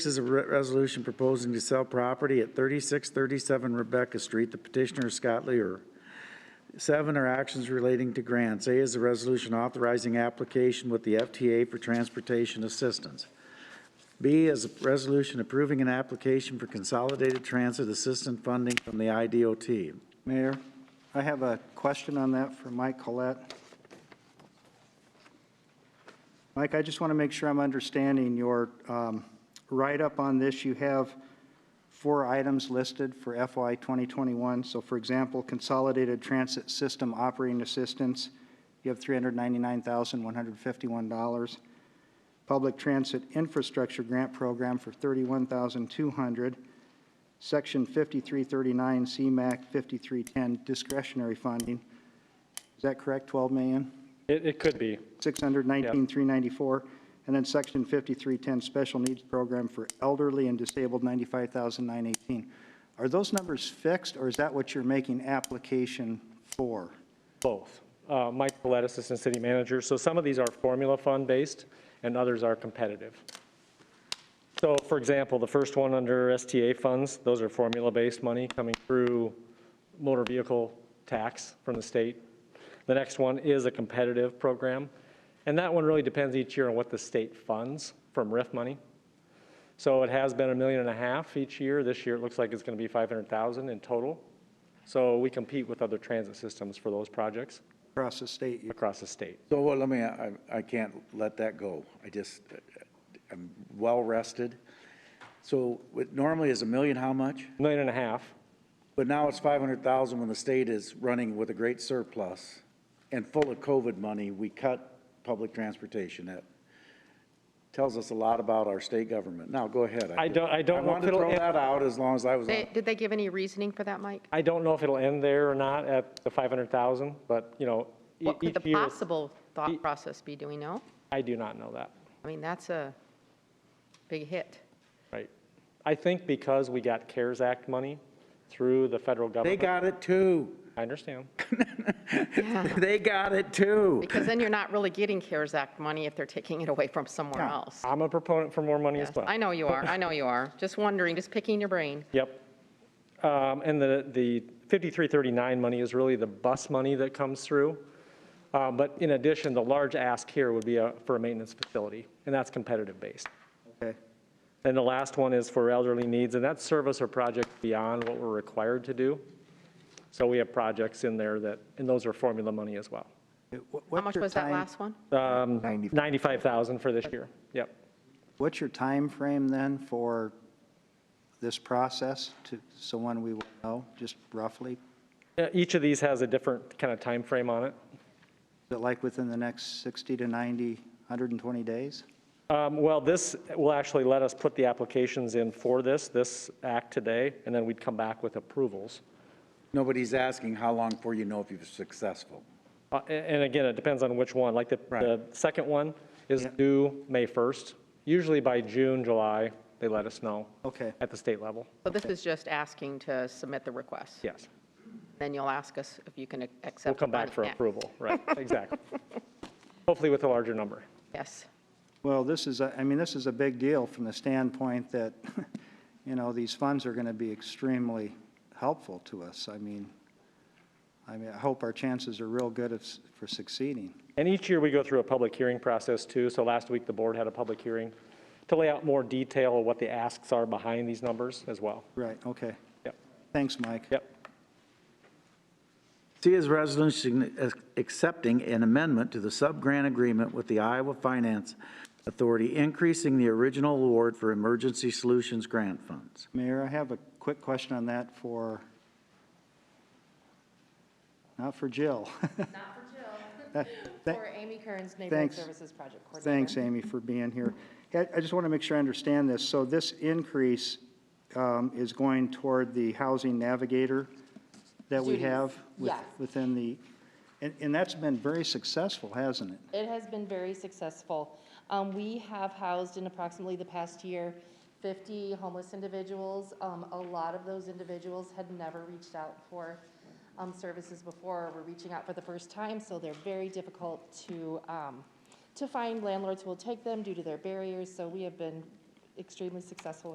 This is a re- resolution proposing to sell property at 3637 Rebecca Street. The petitioner is Scott Lear. Seven are actions relating to grants. A is a resolution authorizing application with the FTA for transportation assistance. B is a resolution approving an application for consolidated transit assistance funding from the IDOT. Mayor, I have a question on that for Mike Collette. Mike, I just want to make sure I'm understanding your um, write-up on this. You have four items listed for FY 2021. So for example, Consolidated Transit System Operating Assistance, you have $399,151. Public Transit Infrastructure Grant Program for $31,200. Section 5339, CMAC 5310, discretionary funding. Is that correct, 12 million? It, it could be. 619,394. And then Section 5310, Special Needs Program for Elderly and Disabled, 95,918. Are those numbers fixed, or is that what you're making application for? Both. Uh, Mike Collette, Assistant City Manager. So some of these are formula fund-based, and others are competitive. So for example, the first one under STA funds, those are formula-based money coming through motor vehicle tax from the state. The next one is a competitive program, and that one really depends each year on what the state funds from RIF money. So it has been a million and a half each year. This year, it looks like it's going to be 500,000 in total. So we compete with other transit systems for those projects Across the state, you- across the state. So, well, let me, I, I can't let that go. I just, I'm well rested. So what normally is a million, how much? Million and a half, But now it's 500,000 when the state is running with a great surplus and full of COVID money, we cut public transportation. That tells us a lot about our state government. Now, go ahead. I don't- I I don't want wanted to to- throw that out as long as I was on. They- Did they give any reasoning for that, Mike? I don't know if it'll end there or not at the 500,000, but, you know, e- What could each the year, possible e- thought process be? Do we know? I do not know that, I mean, that's a big hit. right? I think because we got CARES Act money through the federal They government, got it too. I understand. They got it too. Because then you're not really getting CARES Act money if they're taking it away from somewhere Yeah. else. I'm a proponent for more money as Yes, well. I know you are, I know you are. Just wondering, just picking your brain. Yep. Um, And the, the 5339 money is really the bus money that comes through. Uh, But in addition, the large ask here would be uh, for a maintenance facility, and that's competitive-based. okay. And the last one is for elderly needs, and that's service or project beyond what we're required to do. So we have projects in there that, and those are formula money as well. How much was that last one? Um, 95,000 for this year, yep. What's your time frame then for this process to, so when we will know, just roughly? Uh, Each of these has a different kind of time frame on it. Is it like within the next 60 to 90, 120 days? Um, Well, this will actually let us put the applications in for this, this act today, and then we'd come back with approvals. Nobody's asking how long before you know if you're successful. Uh, a- And again, it depends on which one. Like the, the second one is Yeah. due May 1st. Usually by June, July, they let us know. Okay. At the state level, So this is just asking to submit the request. yes. Then you'll ask us if you can ac- accept. We'll come the back money. for Yeah. approval, right, exactly. Hopefully with a larger number. Yes. Well, this is, a- I mean, this is a big deal from the standpoint that, you know, these funds are going to be extremely helpful to us. I mean, I mean, I hope our chances are real good of s- for succeeding. And each year, we go through a public hearing process too. So last week, the board had a public hearing to lay out more detail of what the asks are behind these numbers as well. Right, okay. Yep, Thanks, Mike. yep. C is a resolution accepting an amendment to the sub-grant agreement with the Iowa Finance Authority, increasing the original award for emergency solutions grant funds. Mayor, I have a quick question on that for, not for Jill. Not for Jill, for Amy Kearns, Neighborhood Thanks. Services Project Coordinator. Thanks, Amy, for being here. I I just want to make sure I understand this. So this increase um, is going toward the housing navigator that we Duties, have with- yes. within the, and and that's been very successful, hasn't it? It has been very successful. Um, We have housed in approximately the past year 50 homeless individuals. Um, A lot of those individuals had never reached out for um, services before, or were reaching out for the first time, so they're very difficult to, um, to find landlords who will take them due to their barriers. So we have been extremely successful